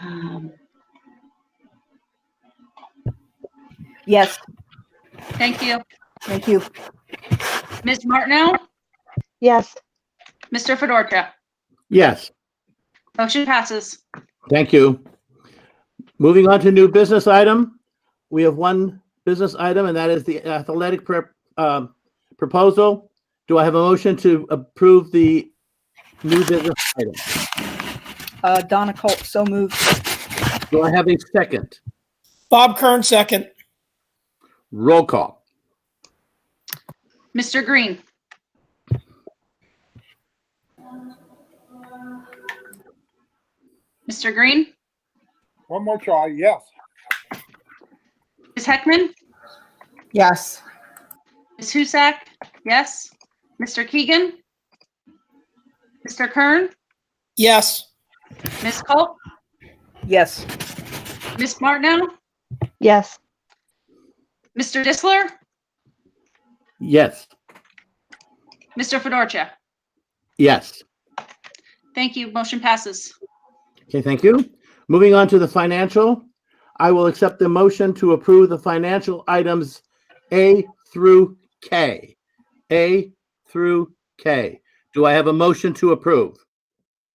Um, Yes, Thank you. thank you. Ms. Martineau? Yes, Mr. Fedorcha? Yes, Motion passes. thank you. Moving on to new business item. We have one business item, and that is the athletic prep, um, proposal. Do I have a motion to approve the new business item? Uh, Donna Colt, so moved. Do I have a second? Bob Kern, second. Roll call. Mr. Green? Mr. Green? One more try, yes. Ms. Heckman? Yes. Ms. Husak? Yes. Mr. Keegan? Mr. Kern? Yes. Ms. Culp? Yes, Ms. Martineau? yes, Mr. Disler? Yes, Mr. Fedorcha? yes. Thank you. Motion passes. Okay, thank you. Moving on to the financial. I will accept the motion to approve the financial items A through K. A through K. Do I have a motion to approve?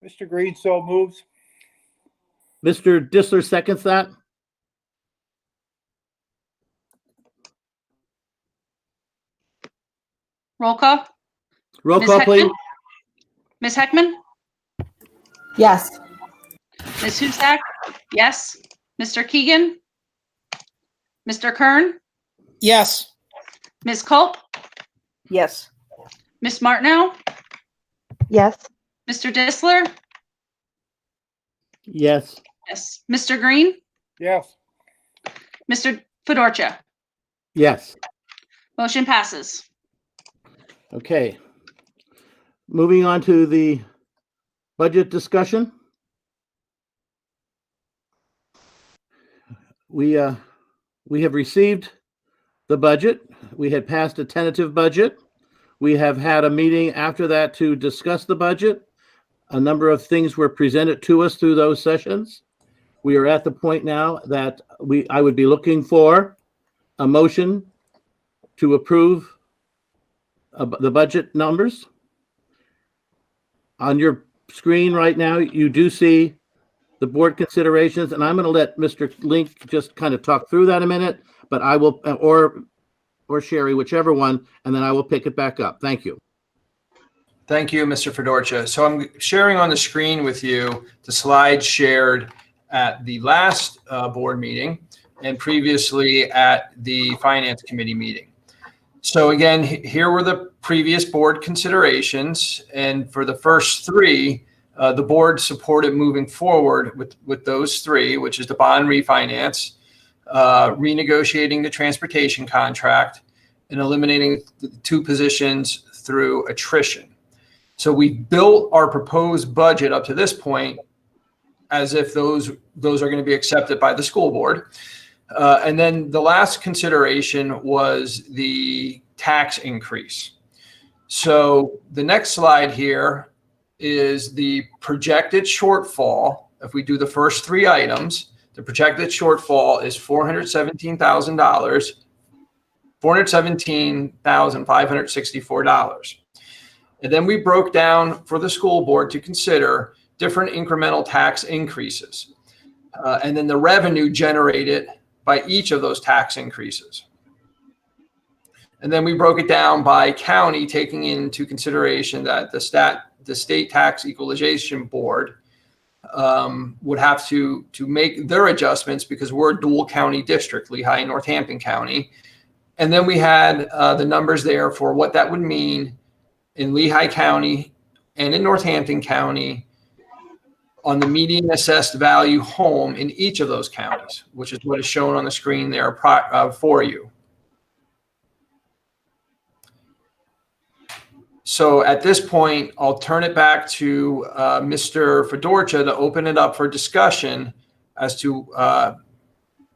Mr. Green so moves. Mr. Disler seconds that. Roll call. Roll Ms. call, Heckman? please. Ms. Heckman? yes. Ms. Husak? Yes. Mr. Keegan? Mr. Kern? Yes. Ms. Culp? Yes, Ms. Martineau? yes, Mr. Disler? Yes, Yes. Mr. Green? Yes, Mr. Fedorcha? yes. Motion passes. Okay. Moving on to the budget discussion. We, uh, we have received the budget. We had passed a tentative budget. We have had a meeting after that to discuss the budget. A number of things were presented to us through those sessions. We are at the point now that we, I would be looking for a motion to approve ab- the budget numbers. On your screen right now, you do see the board considerations, and I'm going to let Mr. Link just kind of talk through that a minute, but I will, uh, or, or Sherry, whichever one, and then I will pick it back up. Thank you. Thank you, Mr. Fedorcha. So I'm sharing on the screen with you the slide shared at the last uh, board meeting and previously at the Finance Committee meeting. So again, he- here were the previous board considerations. And for the first three, uh, the board supported moving forward with, with those three, which is the bond refinance, uh, renegotiating the transportation contract, and eliminating the two positions through attrition. So we built our proposed budget up to this point as if those those are going to be accepted by the school board. Uh, and then the last consideration was the tax increase. So the next slide here is the projected shortfall. If we do the first three items, the projected shortfall is four hundred seventeen thousand dollars, four hundred seventeen thousand five hundred sixty-four dollars. And then we broke down for the school board to consider different incremental tax increases. uh, and then the revenue generated by each of those tax increases. And then we broke it down by county, taking into consideration that the stat, the state tax equalization board um, would have to, to make their adjustments because we're a dual county district, Lehigh and Northampton County. And then we had uh, the numbers there for what that would mean in Lehigh County and in Northampton County on the median assessed value home in each of those counties, which is what is shown on the screen there pro- uh, for you. So at this point, I'll turn it back to uh, Mr. Fedorcha to open it up for discussion as to, uh,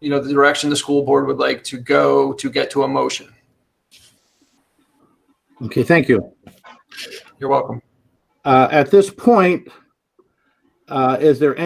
you know, the direction the school board would like to go to get to a motion. Okay, thank you. You're welcome. Uh, at this point, uh, is there